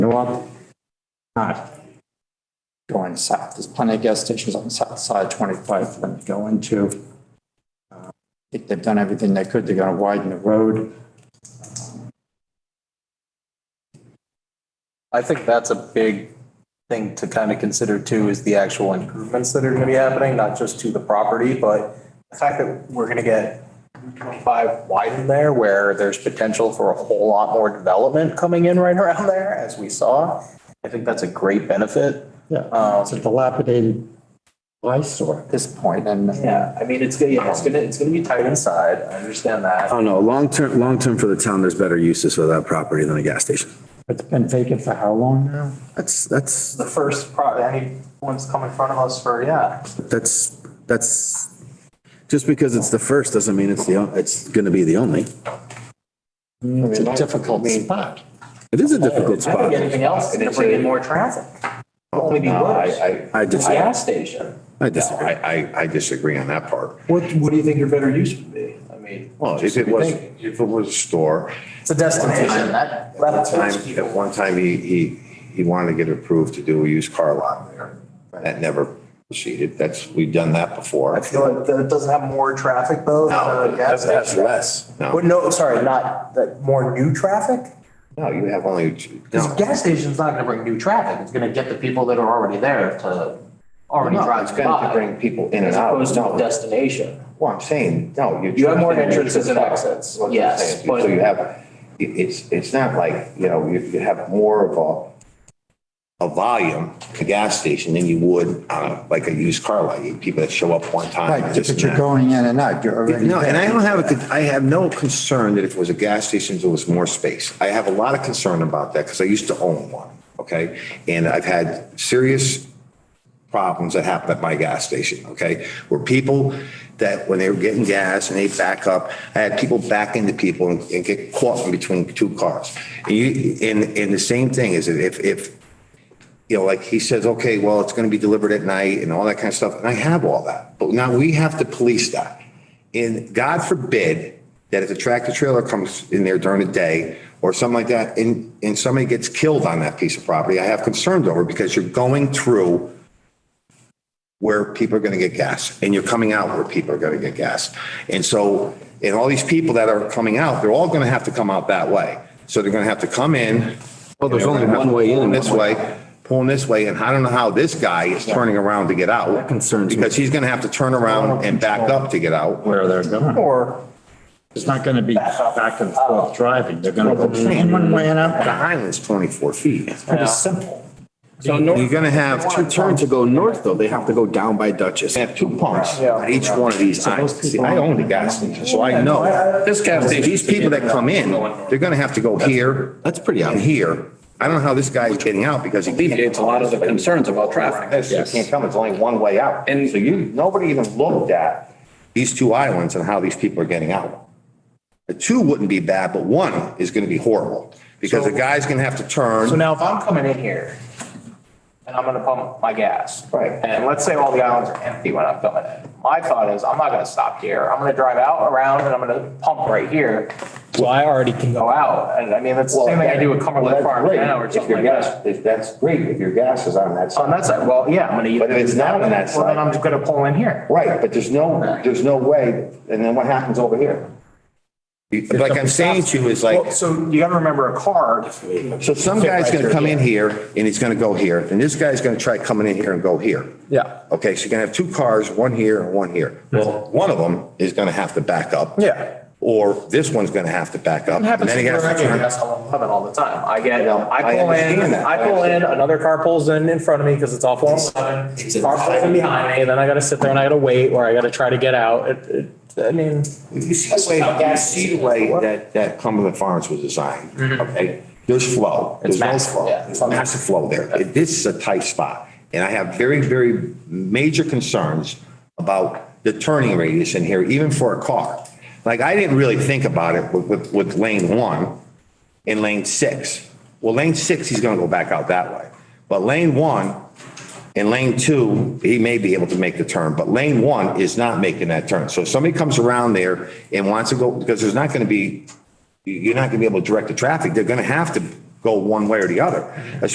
sidewalk. Not going south. There's plenty of gas stations on the south side, 25 for them to go into. Uh, I think they've done everything they could. They're going to widen the road. I think that's a big thing to kind of consider too, is the actual improvements that are gonna be happening, not just to the property, but the fact that we're gonna get five widened there where there's potential for a whole lot more development coming in right around there, as we saw. I think that's a great benefit. Yeah, it's a dilapidated eyesore Um, at this point, and uh, Yeah, I mean, it's gonna, yeah, it's gonna, it's gonna be tight inside. I understand that. I don't know, Oh, long term, long term for the town, there's better uses for that property than a gas station. it's been vacant for how long now? That's, that's, The first pro, anyone's come in front of us for, yeah. that's, that's, just because it's the first doesn't mean it's the, on- it's gonna be the only. It's a difficult spot. It is a difficult I think spot. anything else is gonna bring in more traffic. It'll Only be worse. I, I, I It's a disagree. gas station. I no, disagree. I, I, I disagree on that part. What, what do you think your better use would be? I mean. Well, if it was, if it was a store, It's a destination. That, that time, puts people. at one time, he, he, he wanted to get approved to do a used car lot there. That never proceeded. That's, we've done that before. I feel like that it doesn't have more traffic though than a gas That's station. less. No, But no, sorry, not, that, more new traffic? no, you have only, two- This no. gas station's not gonna bring new traffic. It's gonna get the people that are already there to already No, drive it's going to by. bring people in and As out. opposed to a No, destination. well, I'm saying, no. You have more entrances and exits, What I'm yes, saying. but- So you have, it, it's, it's not like, you know, you, you have more of a, a volume at a gas station than you would on a, like a used car lot. You- People that show up one time. Right, this but and you're that. going in and out, you're already. No, and I there. don't have a, con- I have no concern that if it was a gas station, there was more space. I have a lot of concern about that because I used to own one, okay? And I've had serious problems that happen at my gas station, okay? Where people that, when they were getting gas and they back up, I had people back into people and and get caught in between two cars. And you, and, and the same thing is that if, if, you know, like he says, okay, well, it's going to be delivered at night and all that kind of stuff. And I have all that. But now we have to police that. And God forbid that if a tractor trailer comes in there during the day or something like that, and, and somebody gets killed on that piece of property, I have concerns over because you're going through where people are going to get gas and you're coming out where people are going to get gas. And so, and all these people that are coming out, they're all going to have to come out that way. So they're going to have to come in. Well, there's and they're only gonna have one to way in pull and This one way, pulling this way, and I don't know how this guy is turning around to get out. That concerns me. Because he's going to have to turn around and back up to get out. Where they're going. Or It's not going to be back and forth driving. They're going to go in one way and The out. island's 24 feet. Pretty simple. So no, You're going to have to two turn turns, to go north though, they have to go down by Duchess. you have two pumps on each one of these islands. See, I own the gas station, so I know. This gas These people that come in, they're going to have to go here That's pretty and obvious. here. I don't know how this guy's getting out because he can't. alleviates a lot of the concerns about traffic. This, you can't come, it's only one way out. And so you, nobody even looked at these two islands and how these people are getting out. The two wouldn't be bad, but one is gonna be horrible because the guy's gonna have So to turn. now if I'm coming in here and I'm gonna pump my gas. Right. And let's say all the islands are empty when I'm coming in. My thought is, I'm not gonna stop here. I'm gonna drive out around and I'm gonna pump right here, So I already can go. go out. And I mean, that's the same thing I do with Cumberland Farms now or something like that. If that's great, if your gas is on that On side. that side, well, yeah, I'm gonna. But if it's not on that Well, side- then I'm just gonna pull in here. Right, but there's no, there's no way, and then what happens over here? Like I'm saying to you is like. Well, so you gotta remember a car. So some guy's going to come in here and he's going to go here, and this guy's going to try coming in here and go here. Yeah. Okay, so you're going to have two cars, one here and one here. Well, one of them is going to have to back up. Yeah. Or this one's going to have to back up. And then he has to turn. That's how I'm coming all the time. I get, No, I I pull in, understand that. I pull in, another car pulls in in front of me because it's off one eleven. Car pulls in behind me, and then I gotta sit there and I gotta wait or I gotta try to get out. It, it, I mean. You see the way, you see the way that, that Cumberland Farms was designed, okay? There's flow. There's no Mm-hmm. massive, flow. yeah. There's massive flow there. It- This is a tight spot. And I have very, very major concerns about the turning radius in here, even for a car. Like, I didn't really think about it with, with, with lane one and lane six. Well, lane six, he's gonna go back out that way. But lane one, in lane two, he may be able to make the turn, but lane one is not making that turn. So if somebody comes around there and wants to go, because there's not going to be, you- you're not going to be able to direct the traffic, they're going to have to go one way or the other. As